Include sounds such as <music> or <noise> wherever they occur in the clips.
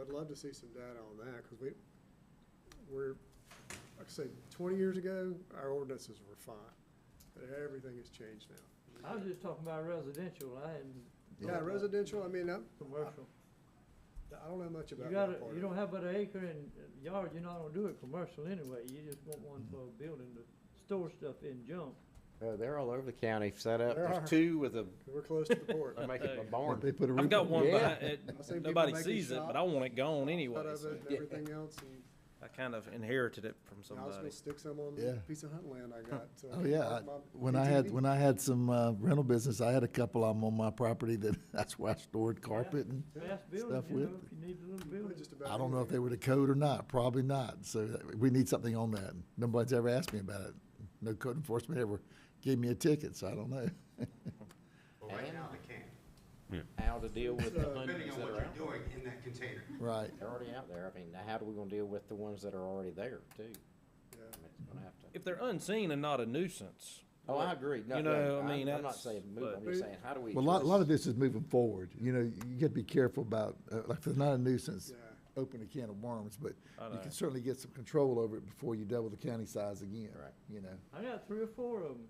I'd love to see some data on that, because we, we're, like I said, twenty years ago, our ordinances were fine, but everything has changed now. I was just talking about residential, I hadn't. Yeah, residential, I mean, I, Commercial. I don't know much You about my gotta, part. you don't have but an acre and yard, you're not gonna do it commercial anyway, you just want one for a Mm-hmm. building to store stuff in junk. Uh, they're all over the county set up. There are. There's two with a, We're close to the port. they're making a But barn. <laughs> They put a I've roof got on one Yeah. behind I've it. seen people Nobody making sees it, shop but I want it gone Out anyway. of so it and everything else, <laughs> and I kind of inherited it from I was gonna somebody. stick some on Yeah. the piece of hunt land I got. uh, Oh, yeah. I- my When I had, ATV. when I had some uh, rental business, I had a couple of them on my property that, <laughs> that's where I stored carpet and Fast building, Stuff you know, with- if you need a You little put building. just about I don't know if they anything. were the code or not, probably not. So that- we need something on that. Nobody's ever asked me about it. No code enforcement ever gave me a ticket, so I don't know. <laughs> Well, right now they can, How to deal with the Uh, depending hundreds on that what are out. you're doing in that container. Right. They're already out there. I mean, now how do we gonna deal with the ones that are already there too? Yeah. I mean, it's gonna have to. If they're unseen and not a nuisance, Oh, I agree. No, You no, know, I I'm- mean, I'm not that's- saying move, I'm but- just saying, how do we? Well, a lot, a lot of address- this is moving forward. You know, you got to be careful about, uh, like, if it's not a nuisance, <laughs> Yeah. open a can of worms, but I you know. can certainly get some control over it before you double the county size again. Right. You know, I got three or four of them,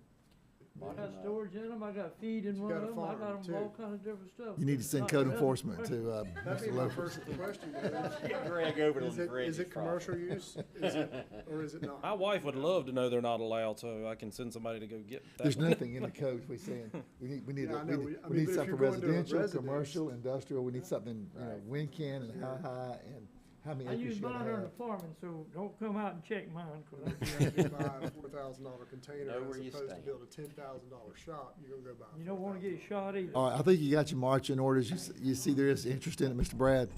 I Bottom got line. storage in them, I got feed in You one got of a them, I farm, got too. them all kinds of different stuff. you need to send Not code just- enforcement to, uh, That'd Mr. be my Lopez. first question. <laughs> though. Greg over to Is the it, bridge. is it probably. commercial use? Is it, or <laughs> is it not? my wife would love to know they're not allowed, so I can send somebody to go get that. There's one. nothing in the code we saying, we need, we need, Yeah, I a- know. we We- need, I we mean, need but if something you're going to a residential, residence- commercial, industrial, we need something, you know, Right. when can and how high and how <laughs> many I acres use you gotta mine on the have. farming, so don't come out and check mine, 'cause I- You have to buy a four thousand dollar container Know where as you opposed to stand. build a ten thousand dollar shop, you're gonna go buy. a you don't wanna get $4,000. shot either. All right, I think you got your marching orders. You, s- you see there is interest in it, Mr. Brad,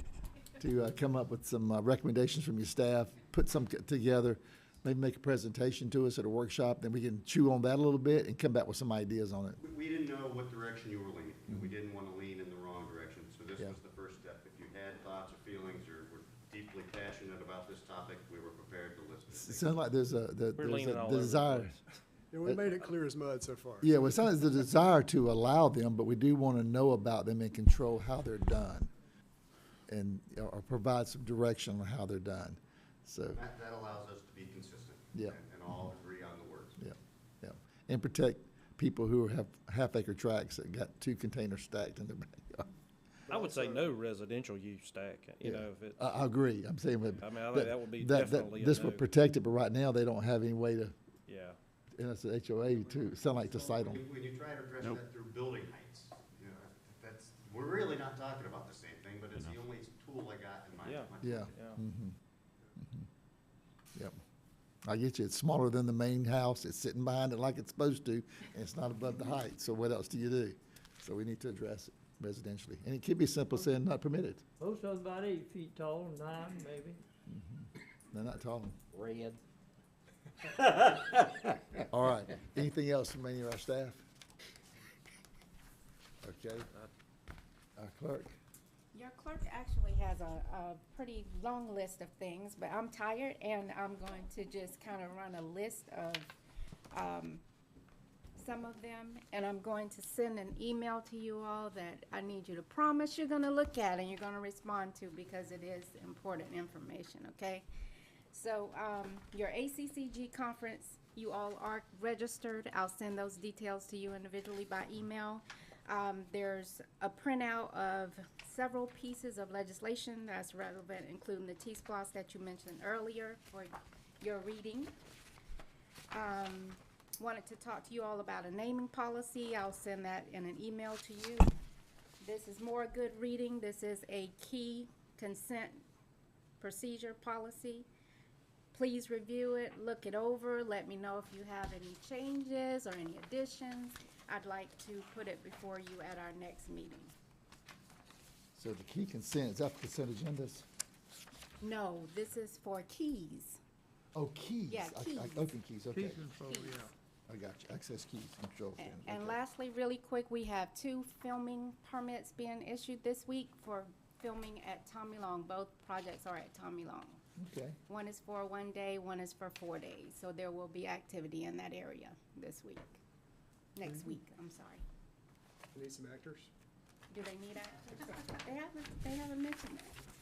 to uh, come up with some uh, recommendations from your staff, put some c- together, maybe make a presentation to us at a workshop, then we can chew on that a little bit and come back with some ideas on it. We, we didn't know what direction you were leaning, and we didn't wanna lean in the wrong direction, so this Mm-hmm. Yeah. was the first step. If you had thoughts or feelings or were deeply passionate about this topic, we were prepared to listen. It sounds like there's a, the- We're there's leaning a all over the desire. place. Yeah, we made it clear as mud so far. Yeah, well, it sounds like there's a desire to allow them, but we do want to know about them and control how they're done. And, or- or provide some direction on how they're done. So, That, that allows us to be consistent. Yeah. and- And all agree on the words. yeah, yeah. And protect people who have half acre tracts that got two containers stacked in their backyard. I would say no residential use stack, you Yeah. know, if it, I, I agree. I'm saying that. I mean, I think that would be definitely a This would no. protect it, but right now they don't have any way to, yeah. and it's an HOA to, sound like to cite When you- them. When you try to address that through building heights, you know, that's, we're really not talking about the same thing, but it's the only tool I got in my. Yeah. my- Yeah. Yeah. mhm, mhm. Yep. I get you. It's smaller than the main house. It's sitting behind it like it's supposed to, and it's not above the height. So what else do you do? So we need to address it residentially. And it could be simple saying not permitted. Most of them about eight feet tall, nine maybe. They're not tall. Red. All right. Anything else from any of our staff? Okay. uh, Our clerk. Your clerk actually has a, a pretty long list of things, but I'm tired and I'm going to just kind of run a list of, um, some of them. And I'm going to send an email to you all that I need you to promise you're gonna look at and you're gonna respond to because it is important information, okay? So, um, your ACCG conference, you all are registered. I'll send those details to you individually by email. Um, there's a printout of several pieces of legislation that's relevant, including the T-Splosh that you mentioned earlier for your reading. Um, wanted to talk to you all about a naming policy. I'll send that in an email to you. This is more good reading. This is a key consent procedure policy. Please review it, look it over, let me know if you have any changes or any additions. I'd like to put it before you at our next meeting. So the key consent, is that for consent agendas? No, this is for keys. Oh, keys. Yeah, I- I- keys. Open keys, okay. control, Oh, yeah. I got you. Access keys, control. And- standards, And okay. lastly, really quick, we have two filming permits being issued this week for filming at Tommy Long. Both projects are at Tommy Long. Okay. One is for one day, one is for four days. So there will be activity in that area this week, next week, I'm sorry. Need some actors? Do they need actors? They haven't, they haven't mentioned that.